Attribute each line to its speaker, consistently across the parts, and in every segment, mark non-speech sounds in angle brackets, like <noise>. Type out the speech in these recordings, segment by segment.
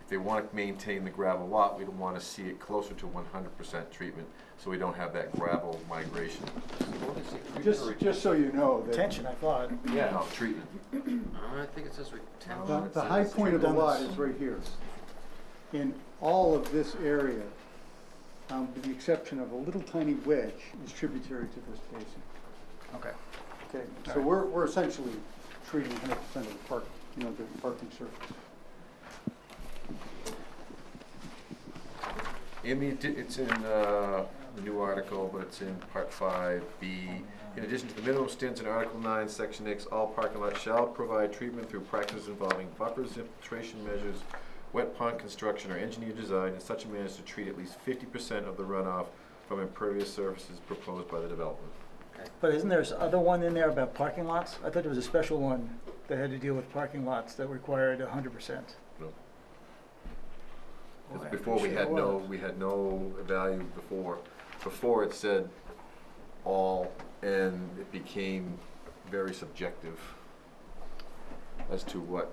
Speaker 1: if they want to maintain the gravel lot, we'd want to see it closer to one hundred percent treatment, so we don't have that gravel migration. What is it,
Speaker 2: Just,
Speaker 1: treatment
Speaker 2: just so you know, that
Speaker 3: Attention, I thought.
Speaker 1: or- Yeah, no, treatment.
Speaker 4: Uh, I think it says
Speaker 2: the,
Speaker 4: retention.
Speaker 2: the high point of the
Speaker 3: Done
Speaker 2: lot
Speaker 3: this.
Speaker 2: is right here. And all of this area, um, with the exception of a little tiny wedge, is tributary to this basin.
Speaker 3: Okay.
Speaker 2: Okay, so we're, we're essentially treating hundred percent of the park, you know, the parking surface.
Speaker 1: In the, addi- it's in, uh, the new article, but it's in part five B. In addition to the minimum stands in Article nine, Section X, all parking lots shall provide treatment through practices involving buffers, infiltration measures, wet pond construction or engineer design in such a manner as to treat at least fifty percent of the runoff from impervious surfaces proposed by the development.
Speaker 3: But isn't there s- other one in there about parking lots? I thought there was a special one that had to deal with parking lots that required hundred percent.
Speaker 1: No. 'Cause before we had no, we had no value before. Before it said all, and it became very subjective as to what,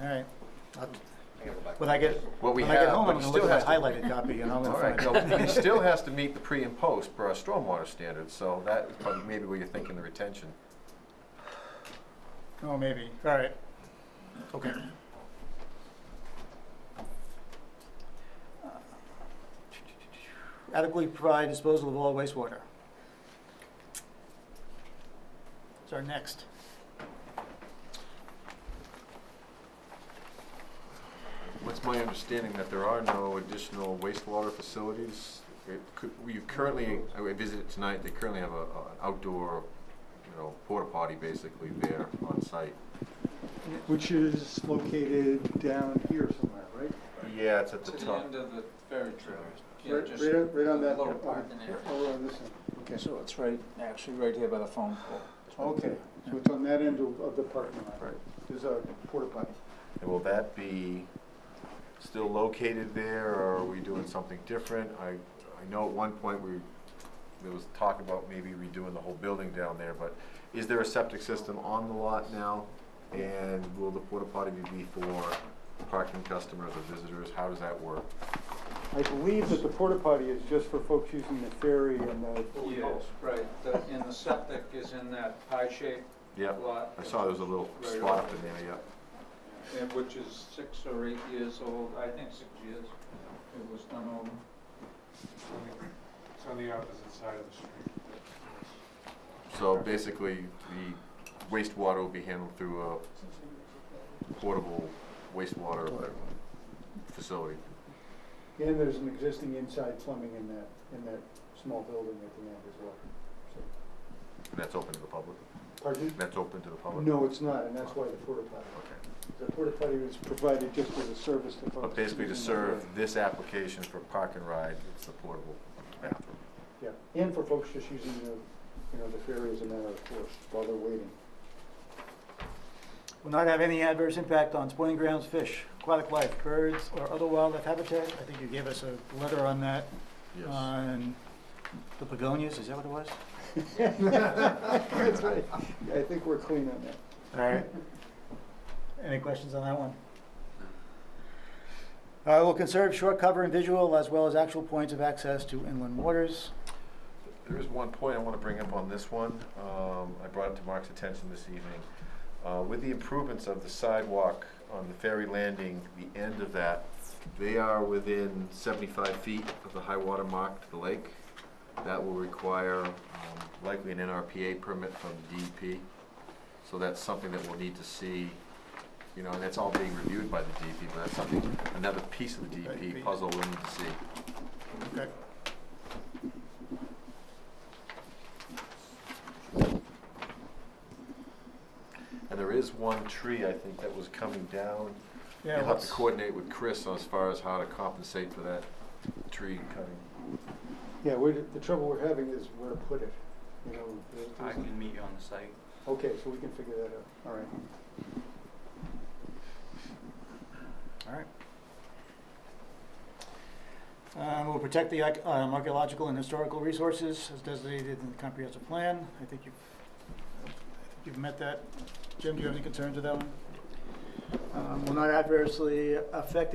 Speaker 3: All right.
Speaker 4: I gotta go back.
Speaker 3: When I get,
Speaker 1: what we
Speaker 3: when I get
Speaker 1: have,
Speaker 3: home,
Speaker 1: but
Speaker 3: I'm
Speaker 1: it
Speaker 3: gonna look
Speaker 1: still
Speaker 3: at
Speaker 1: has
Speaker 3: that
Speaker 1: to.
Speaker 3: highlighted copy and I'm
Speaker 1: All
Speaker 3: gonna
Speaker 1: right, no,
Speaker 3: find it.
Speaker 1: it still has to meet the pre and post per our stormwater standards, so that is probably maybe where you're thinking the retention.
Speaker 3: Oh, maybe. All right. Okay. Adequately provide disposal of all wastewater. It's our next.
Speaker 1: What's my understanding that there are no additional wastewater facilities? It could, we currently, I visited tonight, they currently have a, a- an outdoor, you know, porta potty basically there on site.
Speaker 2: Which is located down here somewhere, right?
Speaker 1: Yeah, it's at the
Speaker 5: To the
Speaker 1: top.
Speaker 5: end of the ferry trail. Yeah,
Speaker 2: Right,
Speaker 5: just
Speaker 2: right, right on that.
Speaker 5: lower
Speaker 2: uh,
Speaker 5: part in there.
Speaker 2: Over on this end, okay.
Speaker 6: So it's right, actually right here by the phone pole.
Speaker 2: Okay, so it's on that end of, of the parking lot.
Speaker 1: Right.
Speaker 2: There's a porta potty.
Speaker 1: And will that be still located there, or are we doing something different? I, I know at one point we, there was talk about maybe redoing the whole building down there, but is there a septic system on the lot now? And will the porta potty be for parking customers or visitors? How does that work?
Speaker 2: I believe that the porta potty is just for folks using the ferry and the.
Speaker 5: Yes, right, the, and the septic is in that pie-shaped
Speaker 1: Yep,
Speaker 5: lot.
Speaker 1: I saw there was a little
Speaker 5: Right
Speaker 1: spot up
Speaker 5: over.
Speaker 1: in there, yep.
Speaker 5: and Which is six or eight years old, I think six years, it was done over.
Speaker 7: It's on the opposite side of the street.
Speaker 1: So basically, the wastewater will be handled through a portable wastewater facility.
Speaker 2: And there's an existing inside plumbing in that, in that small building at the end as well. So-
Speaker 1: And that's open to the public?
Speaker 2: Pardon?
Speaker 1: That's open to the public?
Speaker 2: No, it's not, and that's why the porta potty.
Speaker 1: Okay.
Speaker 2: The porta potty was provided just as a service to folks.
Speaker 1: But basically to
Speaker 2: using the ferry.
Speaker 1: serve this application for park and ride, it's a portable bathroom.
Speaker 2: Yeah, and for folks just using the, you know, the ferry as a matter of course while
Speaker 1: <laughs>
Speaker 2: they're waiting. <laughs>
Speaker 3: Will not have any adverse impact on spawning grounds, fish, aquatic life, birds, or other wildlife habitat. I think you gave us a letter on that, on the begonias, is that what it was?
Speaker 2: That's right. Yeah, I think we're clean on that.
Speaker 3: All right. Any questions on that one? Uh, will conserve shore cover and visual as well as actual points of access to inland waters.
Speaker 1: There is one point I want to bring up on this one. Um, I brought it to Mark's attention this evening. Uh, with the improvements of the sidewalk on the ferry landing, the end of that, they are within seventy-five feet of the high water mark to the lake. That will require, um, likely an NRPA permit from DEP. So that's something that we'll need to see, you know, and that's all being reviewed by the DEP, but that's something, another piece of the DEP puzzle we'll need to see.
Speaker 3: Okay.
Speaker 1: And there is one tree, I think, that was coming down.
Speaker 3: Yeah,
Speaker 1: You'll have to
Speaker 3: what's,
Speaker 1: coordinate with Chris as far as how to compensate for that tree cutting.
Speaker 2: Yeah, we're, the trouble we're having is where to put it, you know. there's-
Speaker 6: I
Speaker 2: there's-
Speaker 6: can meet you on the site.
Speaker 2: Okay, so we can figure that out, all right.
Speaker 3: all right. Um, will protect the arch- um, archaeological and historical resources as designated in the comprehensive plan. I think you've, I think you've met that. Jim, do you have any concerns with that one? Um, will not adversely affect the